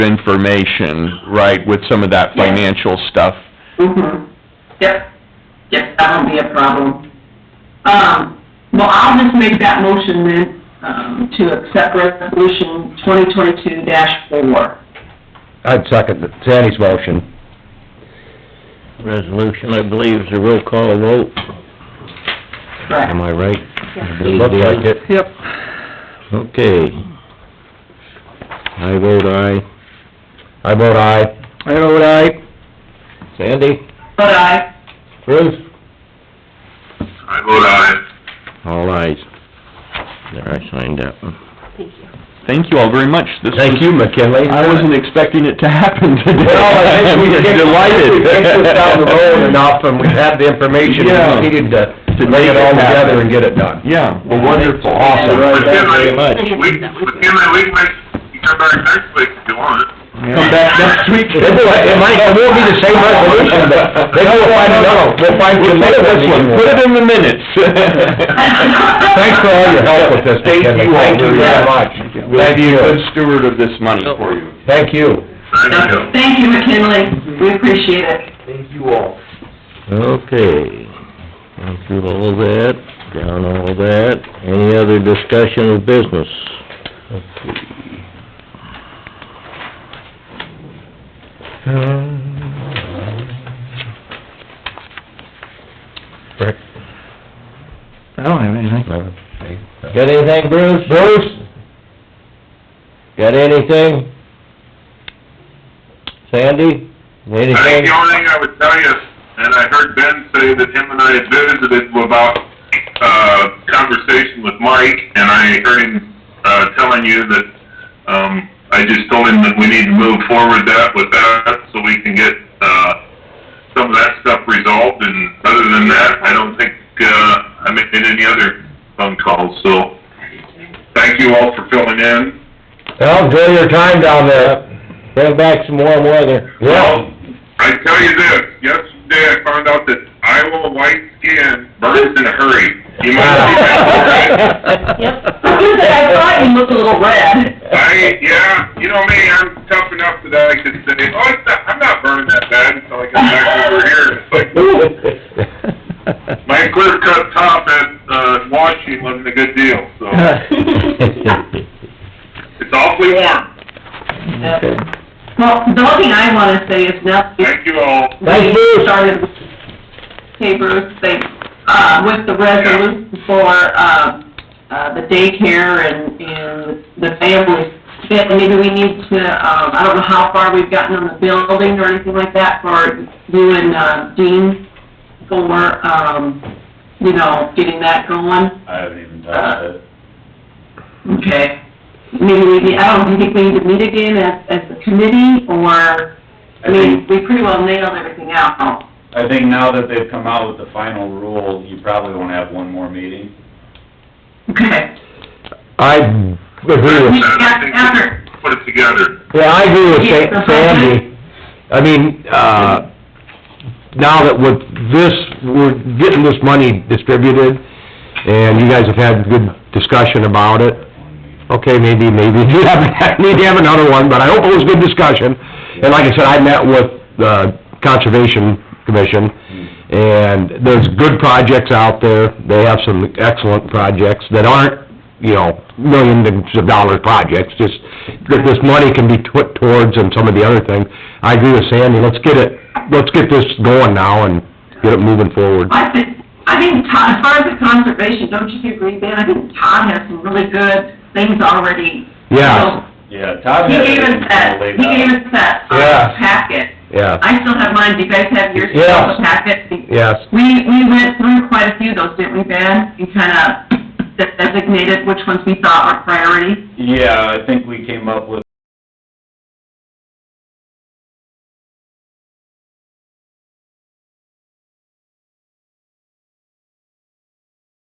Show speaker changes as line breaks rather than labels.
information, right, with some of that
Yeah.
financial stuff.
Mm-hmm. Yep, yep, that won't be a problem. Um, well, I'll just make that motion then, um, to accept resolution twenty twenty-two four.
I'd second Sandy's motion.
Resolution, I believe, is a roll call vote.
Correct.
Am I right?
It looked like it.
Yep.
Okay. I vote aye.
I vote aye.
I vote aye.
Sandy?
But I,
Bruce?
I vote aye.
All ayes. There, I signed that one.
Thank you all very much. This was-
Thank you, McKinley.
I wasn't expecting it to happen today.
Well, I think we
I'm
kicked-
delighted.
We kicked this down the road enough, and we had the information
Yeah.
we needed to
To
bring it
make it
all
happen.
together and get it done.
Yeah, well, wonderful, awesome.
Awesome. Right, thank you
very
much.
We, within my week, like, you come back next week if you want.
Come back next week. It might, it might, it won't be the same resolution, but they will find, no, we'll find
We'll
some
take
other
this one,
one.
put it in the minutes. Thanks
Thanks for all your help with this, McKinley.
Thank you all very much.
much.
We'll be a good steward of this money for you.
Thank you.
Thank you.
thank you McKinley, we appreciate it.
Okay. Gone through all of that, down all that. Any other discussion of business?
Rick?
I don't have anything.
Got anything, Bruce? Bruce? Got anything? Sandy?
I think
Anything?
the only thing I would tell you, is, and I heard Ben say that him and I had visited about, uh, conversation with Mike, and I heard him, uh, telling you that, um, I just told him that we need to move forward that with that, so we can get, uh, some of that stuff resolved, and other than that, I don't think, uh, I made any other phone calls, so thank you all for filling in.
Well, enjoy your time down there. Bring back some warm weather. Yeah.
Well, Um, I tell you this, yesterday I found out that Iowa white skin burns in a hurry. You might see that.
I thought you looked a little red.
I, yeah, you know me, I'm tough enough that I could say, oh, it's not, I'm not burning that bad until I get back over here. It's like, my clear cut top at, uh, washing wasn't a good deal, so it's awfully warm.
Okay. Well, the only thing I wanna say is now, that
Thank you all.
Thanks, Bruce.
we started, hey Bruce, thanks, uh, with the resolution for, uh, uh, the daycare and, and the families. Yeah, maybe we need to, um, I don't know how far we've gotten on the building or anything like that for you and, uh, Dean for, um, you know, getting that going.
I haven't even touched it.
Okay. Maybe we, need- I don't, do you think we need to meet again as, as a committee, or, I mean, we pretty well nailed everything out.
I think now that they've come out with the final rule, you probably won't have one more meeting.
Okay.
I agree with,
I think we Put it together.
yeah, I agree with Sa- Sandy. I mean, uh, now that with this, we're getting this money distributed, and you guys have had good discussion about it. Okay, maybe, maybe you have, need to have another one, but I hope it was good discussion. And like I said, I met with the Conservation Commission, and there's good projects out there. They have some excellent projects that aren't, you know, millions of dollar projects, just that this money can be put towards and some of the other things. I agree with Sandy, let's get it, let's get this going now and get it moving forward.
I think, I think Todd, as far as the conservation, don't you agree, Ben? I think Todd has some really good things already.
Yeah,
Yeah, Todd
He
has
gave
everything
us that,
laid
he gave
out.
us that, uh,
Yeah.
packet.
yeah,
I still have mine, do you guys have yours, still,
Yes.
the packet?
yes.
We, we went through quite a few of those, didn't we, Ben? And kind of designated which ones we thought were priority.
Yeah, I think we came up with